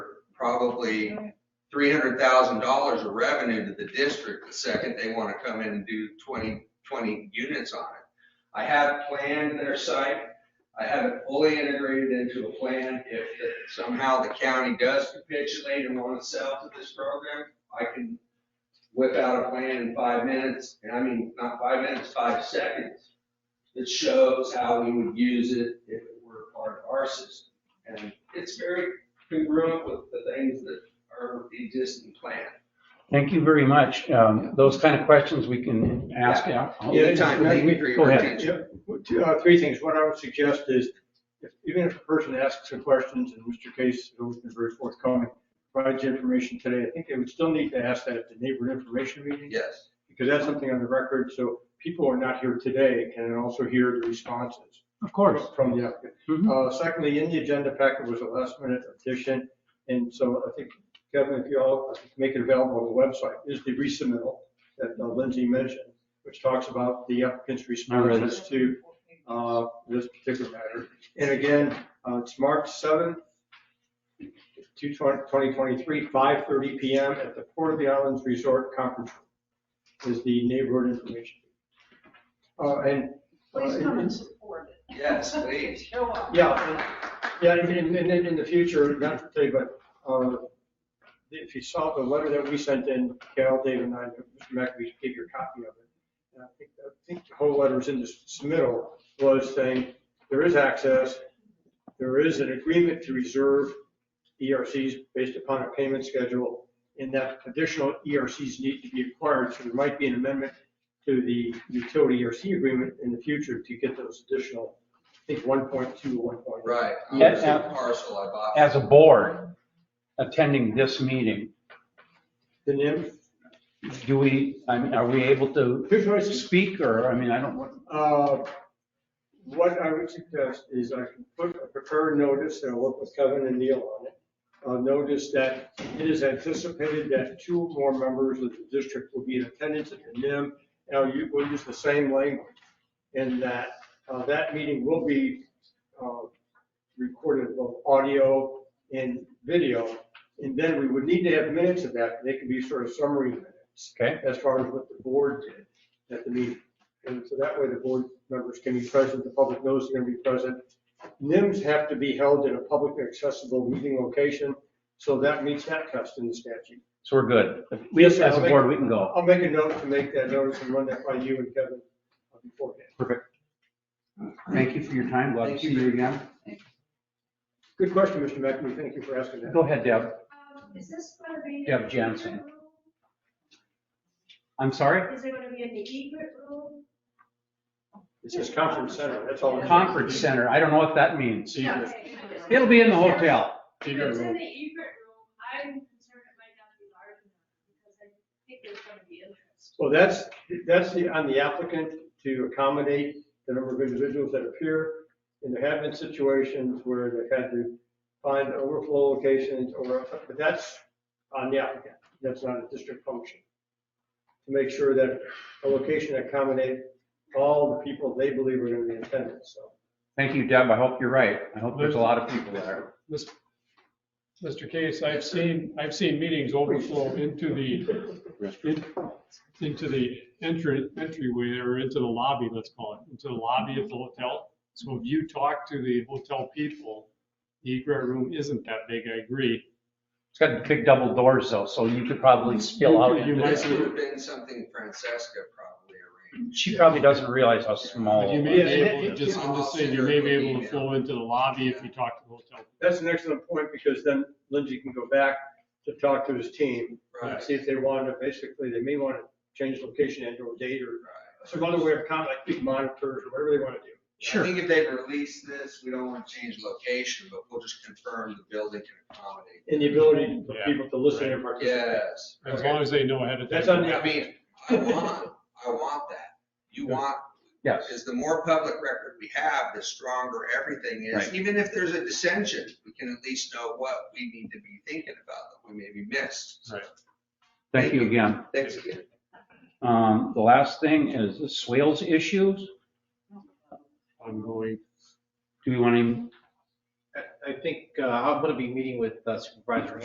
probably three hundred thousand dollars of revenue to the district the second they want to come in and do 20 20 units on it. I have planned their site. I have it fully integrated into a plan. If somehow the county does capitulate and want to sell to this program, I can whip out a plan in five minutes, and I mean, not five minutes, five seconds, that shows how we would use it if it were part of our system. And it's very congruent with the things that are the existing plan. Thank you very much. Um, Those kind of questions we can ask out. Anytime, thank you for Go your ahead. attention. Well, Two, uh, three things. What I would suggest is, if- even if a person asks the questions, and Mr. Case has always been very forthcoming, provides the information today, I think they would still need to ask that at the neighborhood information meeting, Yes, because that's something on the record, so people who are not here today can also hear the responses. Of course. From the applicant. Mhm. Uh, secondly, in the agenda packet was a last minute addition, and so I think, Kevin, if you all make it available on the website, is the resubmittal that uh, Lindsay mentioned, which talks about the applicant's read it. responses to, uh, this particular matter. And again, uh, it's March seventh, 2023, 5:30 PM at the Port of the Islands Resort Conference Room is the neighborhood information. Uh, and. uh, Please come and support it. yes, please. Show up. Yeah, and- Yeah, and in, in, in- in the future, not for today, but, uh, if you saw the letter that we sent in, Cal, Dave and I, Mr. McAfee gave you a copy of it. And I think, I think the whole letter was in the submittal, was saying, there is access, there is an agreement to reserve ERCs based upon a payment schedule, and that additional ERCs need to be acquired, so there might be an amendment to the utility ERC agreement in the future to get those additional, I think, 1.2 or 1.3. Right. I Yeah, was yeah. a parcel I bought. As a board attending this meeting, The NIM, do we, I mean, are we able to here's what I suspect, speak or, I mean, I don't, uh, what I would suggest is I can put a prepared notice, and I'll work with Kevin and Neil on it. Uh, notice that it is anticipated that two or more members of the district will be in attendance at the NIM. Now, you will use the same language in that, uh, that meeting will be, uh, recorded both audio and video. And then we would need to have minutes of that. They could be sort of summary minutes. okay, as far as what the board did at the meeting. And so that way the board members can be present, the public knows they're going to be present. NIMs have to be held in a publicly accessible meeting location, so that meets that test in the statute. so we're good. We, as a Yes, I'll board, we can go. I'll make a note to make that notice and run that by you and Kevin beforehand. Thank you for your time. Glad to see you again. Good question, Mr. McNamee, thank you for asking that. Go ahead, Deb. Um, Is this going to be? Deb Jansen. I'm sorry? Is it going to be in the egret room? It's just conference center, that's all. it is. Conference center. I don't know what that means. Yeah. It'll be in the hotel. If it's in the egret room, I'm concerned it might not be large enough because I think there's going to be interest. Well, that's, that's the, on the applicant to accommodate the number of individuals that appear. And there have been situations where they've had to find overflow locations or, but that's on the applicant. That's not a district function. To make sure that a location accommodates all the people they believe are going to be in attendance, so. Thank you, Deb. I hope you're right. I hope there's a lot of people there. Mis- Mr. Case, I've seen, I've seen meetings overflow into the, in- into the entry, entryway or into the lobby, let's call it, into the lobby of the hotel. So if you talk to the hotel people, the egret room isn't that big, I agree. It's got big double doors though, so you could probably spill out. You into might This it. would have been something Francesca probably arranged. She probably doesn't realize how But small. you may Oh, be able to, just, I'm just saying, you may be able to flow into the lobby if you talk to the hotel. people. That's an excellent point because then Lindsay can go back to talk to his team and Right, see if they want to, basically, they may want to change location and or date or right. some other way of kind of like big monitors or whatever they want to do. I think if they release this, we don't want to change location, but we'll just confirm the building can accommodate. And the ability for Yeah. people to listen and participate. Yes. As long as they know ahead of time. That's on the I mean, I want, I want that. You want, Yes, because the more public record we have, the stronger everything is. Right. Even if there's a dissension, we can at least know what we need to be thinking about that we maybe missed. Right. thank you again. Thanks again. Um, the last thing is the swales issues. Ongoing. Do we want to I- I think uh, I'm going to be meeting with uh, Supervisor